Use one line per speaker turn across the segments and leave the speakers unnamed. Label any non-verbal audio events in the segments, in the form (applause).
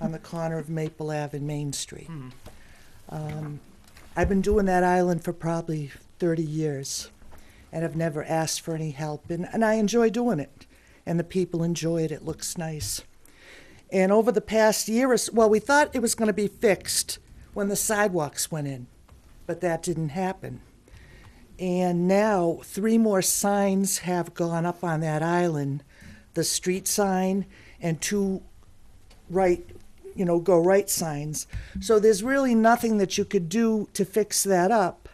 on the corner of Maple Ave and Main Street. Um, I've been doing that island for probably 30 years and have never asked for any help, and, and I enjoy doing it. And the people enjoy it, it looks nice. And over the past year or s well, we thought it was going to be fixed when the sidewalks went in, but that didn't happen. And now, three more signs have gone up on that island the street sign and two right, you know, go right signs. So there's really nothing that you could do to fix that up.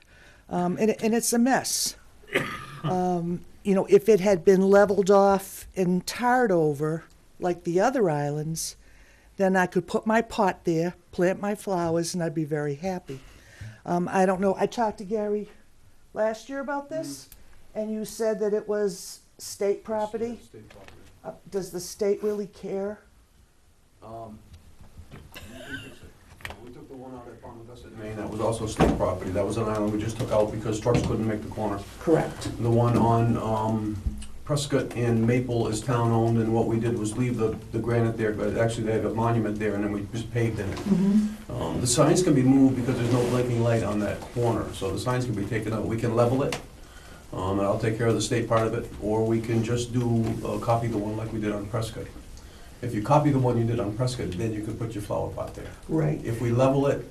Um, and, and it's a mess. (coughs) Um, you know, if it had been leveled off and tarred over like the other islands, then I could put my pot there, plant my flowers, and I'd be very happy. Um, I don't know. I talked to Gary last year about this, and you said that it was state property.
State property.
Uh, does the state really care?
Um, we fixed it. Uh, We took the one out at Palm Invested Maine, that was also state property, that was an island we just took out because trucks couldn't make the corner.
Correct.
The one on um, Prescott and Maple is town-owned, and what we did was leave the the granite there, but actually they have a monument there, and then we just paved in it. Um, The signs can be moved because there's no blinking light on that corner, so the signs can be taken out. We can level it, um, and I'll take care of the state part of it, or we can just do, uh, copy the one like we did on Prescott. If you copy the one you did on Prescott, then you can put your flower pot there.
Right.
If we level it,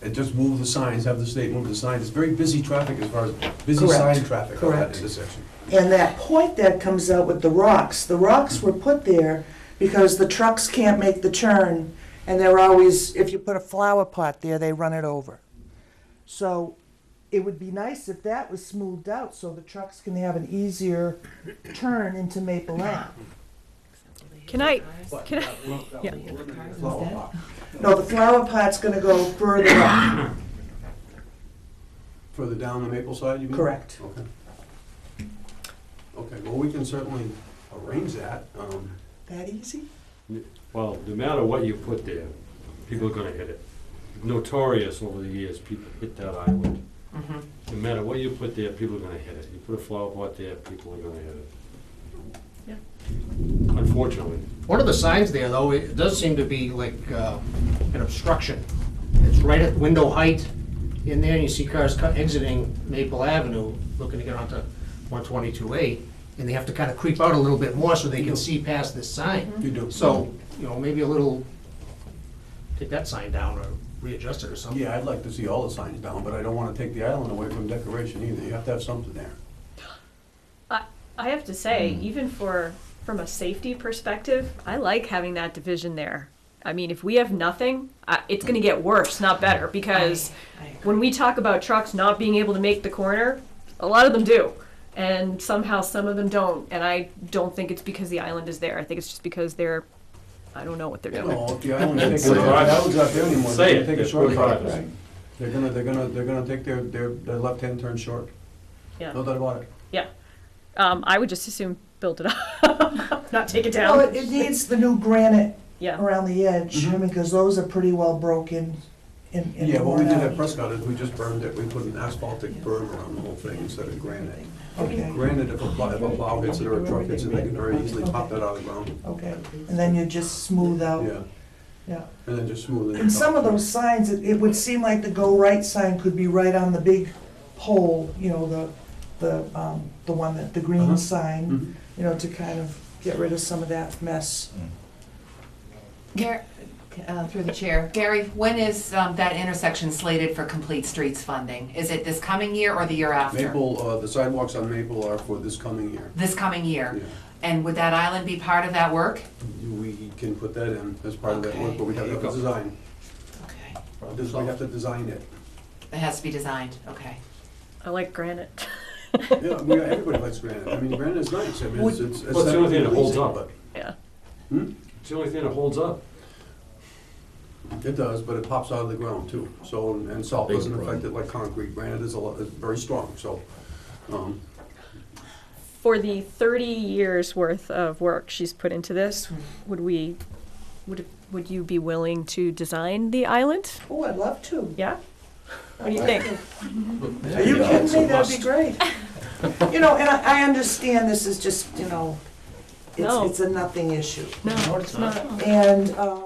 and just move the signs, have the state move the signs, it's very busy traffic as far as, busy
Correct.
sign traffic on that
Correct.
intersection.
And that point that comes out with the rocks, the rocks were put there because the trucks can't make the turn, and they're always, if you put a flower pot there, they run it over. So it would be nice if that was smoothed out so the trucks can have an easier turn into Maple Ave.
Can I,
But
can I,
that will- that
Yeah.
will eliminate the flower pot.
No, the flower pot's gonna go further up.
Further down the Maple side, you mean?
Correct.
Okay. Okay, well, we can certainly arrange that. um,
That easy?
Well, no matter what you put there, people are gonna hit it. Notorious over the years, people hit that island. No matter what you put there, people are gonna hit it. You put a flower pot there, people are gonna hit it. Unfortunately.
One of the signs there, though, it does seem to be like uh, an obstruction. It's right at window height in there, and you see cars co- exiting Maple Avenue, looking to get onto 122A, and they have to kind of creep out a little bit more so they can see past this sign.
You do.
So, you know, maybe a little, take that sign down or readjust it or something.
Yeah, I'd like to see all the signs down, but I don't want to take the island away from decoration either. You have to have something there.
I, I have to say, even for, from a safety perspective, I like having that division there. I mean, if we have nothing, I, it's gonna get worse, not better, because when we talk about trucks not being able to make the corner, a lot of them do. And somehow some of them don't, and I don't think it's because the island is there. I think it's just because they're, I don't know what they're doing.
No, if the island's taken, if
Say it.
the island's not there anymore,
Say
they're
it,
gonna take a
that's
short
what it
cut.
is.
They're gonna, they're gonna, they're gonna take their, their, their left-hand turn short.
Yeah.
No doubt about it.
Yeah. Um, I would just assume build it up, (laughs) not take it
Well, it-
down.
it needs the new granite
Yeah.
around the edge, I mean, because those are pretty well broken and and
Mm-hmm. Yeah, what we
worn
did
out.
at Prescott is we just burned it. We put an asphaltic berm around the whole thing instead of granite.
Okay,
Granite, if a plow, if a plow hits it or a truck hits it, they can very easily pop that out of the ground.
okay, and then you just smooth out.
Yeah,
Yeah,
and then just smooth it.
and some of
out.
those signs, it, it would seem like the go right sign could be right on the big pole, you know, the, the, um, the one that, the green
Uh-huh.
sign,
Mhm.
you know, to kind of get rid of some of that mess.
Mm.
Gary, uh, through the chair, Gary, when is um, that intersection slated for complete streets funding? Is it this coming year or the year after?
Maple, uh, the sidewalks on Maple are for this coming year.
This coming year?
Yeah.
And would that island be part of that work?
We can put that in as part of that work,
Okay.
but we have to have a design.
Okay.
This, we have to design it.
It has to be designed, okay.
I like granite. (laughs)
Yeah, I mean, everybody likes granite. I mean, granite is nice. I mean, it's, it's.
Well, it's the only thing that holds
aesthetically pleasing,
up.
Yeah.
It's the only thing that holds up.
but It does, but it pops out of the ground too. So, and- and salt doesn't affect it like concrete. Granite is a lot, is very strong, so, um,
For the 30 years worth of work she's put into this, would we, would, would you be willing to design the island?
Oh, I'd love to.
Yeah? What do you think?
Are you kidding me? That'd be great. You know, and I, I understand this is just, you know, it's,
No.
it's a nothing issue.
No, it's not.
And, um,